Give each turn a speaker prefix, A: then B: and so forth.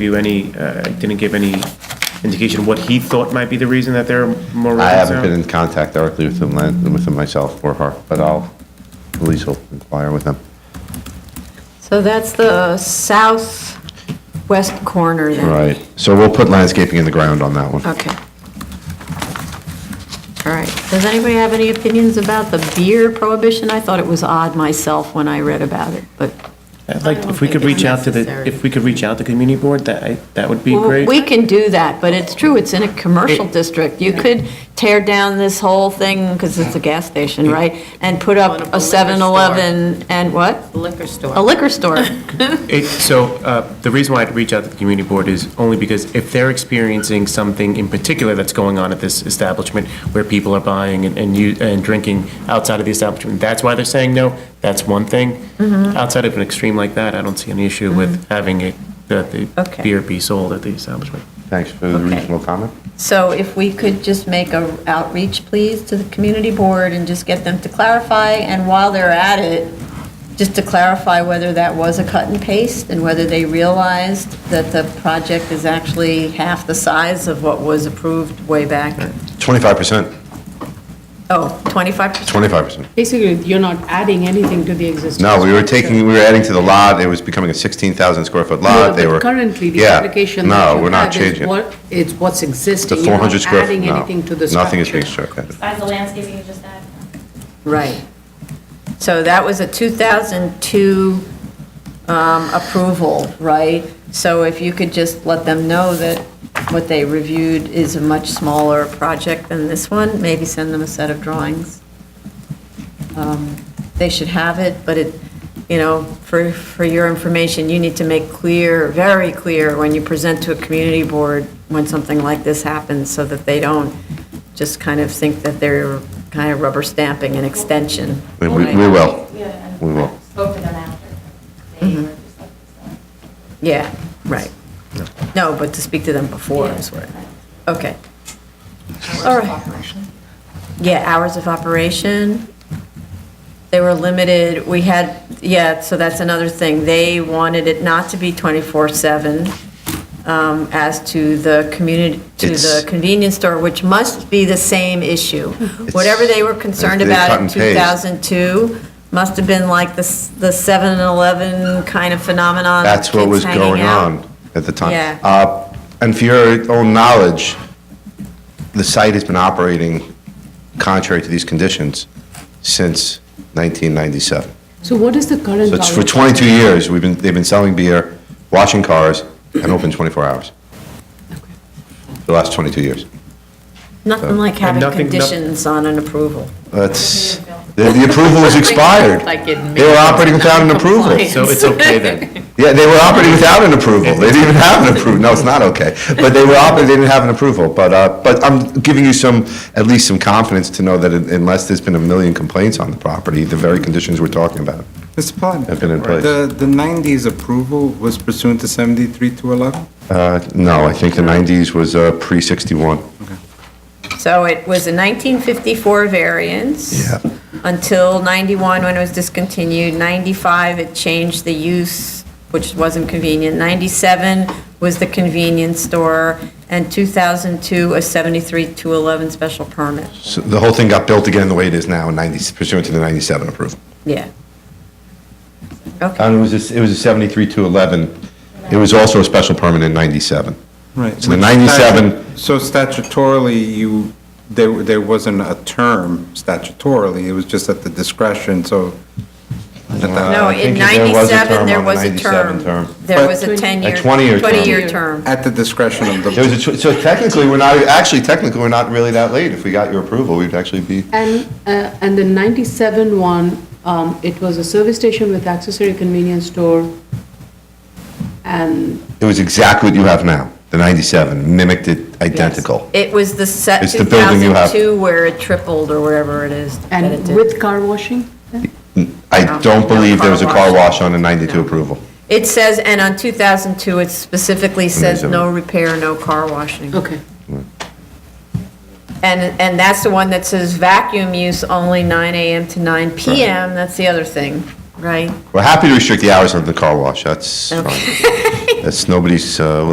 A: you any, uh, didn't give any indication what he thought might be the reason that there are more
B: I
A: residents
B: haven't been
A: now?
B: in contact directly with him, lan- with him myself or her, but I'll, at least will inquire with him.
C: So that's the southwest corner then?
B: Right, so we'll put landscaping in the ground on that one.
C: Okay. All right. Does anybody have any opinions about the beer prohibition? I thought it was odd myself when I read about it, but
A: I'd Like,
D: I don't
A: if we could
D: think it's
A: reach out to the,
D: necessary.
A: if we could reach out to community board, that, I- that would be
C: Well,
A: great.
C: we can do that, but it's true, it's in a commercial district. You could tear down this whole thing, because it's a gas station, right? And put
D: One of
C: up
D: the
C: a
D: liquor store.
C: 7-Eleven and what?
D: Liquor store.
C: A liquor store.
A: It, so, uh, the reason why I'd reach out to the community board is only because if they're experiencing something in particular that's going on at this establishment, where people are buying and, and you, and drinking outside of the establishment, that's why they're saying no, that's one thing.
C: Mm-hmm.
A: Outside of an extreme like that, I don't see any issue with having it, that the
C: Okay.
A: beer be sold at the establishment.
B: Thanks for the
C: Okay.
B: reasonable comment.
C: So if we could just make a outreach, please, to the community board and just get them to clarify, and while they're at it, just to clarify whether that was a cut and paste, and whether they realized that the project is actually half the size of what was approved way back,
B: Twenty-five percent,
C: oh, 25%?
B: twenty-five percent.
D: Basically, you're not adding anything to the existing.
B: No, we were
D: structure.
B: taking, we were adding to the lot, it was becoming a sixteen thousand square foot lot,
D: No,
B: they
D: but
B: were.
D: Currently, the
B: Yeah,
D: application. that
B: No,
D: you
B: we're not
D: have is
B: changing. it.
D: what- It's what's
B: The
D: existing.
B: four hundred square, foot.
D: You're
B: no,
D: not adding anything to the structure.
B: nothing is being struck added.
E: Besides the landscaping you just added.
C: Right. So that was a 2002 um, approval, right? So if you could just let them know that what they reviewed is a much smaller project than this one, maybe send them a set of drawings. Um, They should have it, but it, you know, for, for your information, you need to make clear, very clear, when you present to a community board, when something like this happens, so that they don't just kind of think that they're kind of rubber stamping an extension.
B: We, we
C: right?
B: we will.
E: Yeah, and
B: We will.
E: Spoke to them after.
C: Mm-hmm.
E: They were just like,
C: Yeah, right. No, but to speak to them before is what, okay. All right. Yeah, hours of operation. They were limited, we had, yeah, so that's another thing. They wanted it not to be 24/7 um, as to the community, to
B: It's-
C: the convenience store, which must be the same issue. Whatever they were concerned
B: They cut
C: about in
B: and paste.
C: 2002 must have been like the s- the 7-Eleven kind of phenomenon. with
B: That's what
C: kids
B: was
C: hanging
B: going
C: out.
B: on at the time.
C: Yeah.
B: Uh, And for your own knowledge, the site has been operating contrary to these conditions since 1997.
D: So what is the current?
B: So it's for
D: hours?
B: 22 years, we've been, they've been selling beer, washing cars, and open 24 hours. For The last 22 years.
C: Nothing like having
A: nothing- no-
C: conditions on an approval.
B: That's, the the approval was expired.
D: Like it
B: They were operating without an approval.
D: non-compliant.
A: So it's okay then.
B: Yeah, they were operating without an approval. They didn't even have an approval. No, it's not okay. But they were operating, they didn't have an approval. But, uh, but I'm giving you some, at least some confidence to know that unless there's been a million complaints on the property, the very conditions we're talking about.
F: Mr. Plotnick.
B: Have been in place.
F: The, the 90s approval was pursuant to 73 to 11?
B: Uh, no, I think the 90s was, uh, pre-61.
C: So it was a 1954 variance.
B: Yeah.
C: Until 91, when it was discontinued. 95, it changed the use, which wasn't convenient. 97 was the convenience store, and 2002, a 73 to 11 special permit.
B: So the whole thing got built again the way it is now in 90, pursuant to the 97 approval.
C: Yeah.
B: And
C: Okay,
B: it was, a- it was a 73 to 11. It was also a special permit in 97.
F: Right.
B: So the 97
F: So statutorily, you, there, there wasn't a term statutorily, it was just at the discretion, so. uh, at that-
C: no,
B: Uh, I
C: in
B: think there was a
C: 97,
B: term
C: there
B: on the
C: was a
B: 97
C: term.
B: term.
C: There
F: But-
C: was a 10-year.
B: 20-year term.
C: 20-year term.
F: At the discretion of the.
B: There was a, tw- so technically, we're not, actually technically, we're not really that late. If we got your approval, we'd actually be,
D: And, uh, and the 97 one, um, it was a service station with accessory convenience store. And
B: it was exactly what you have now. The 97 mimicked it identical.
C: It was the set
B: It's the building you have.
C: 2002 where it tripled or wherever it is. that it
D: And
C: did.
D: with car washing? then?
B: I don't believe there was a car wash on the 92 approval.
C: It says, and on 2002, it specifically says no repair, no car washing.
D: Okay.
C: And, and that's the one that says vacuum use only 9 AM to 9 PM, that's the other thing, right?
B: We're happy to restrict the hours of the car wash. That's fine. That's nobody's, uh,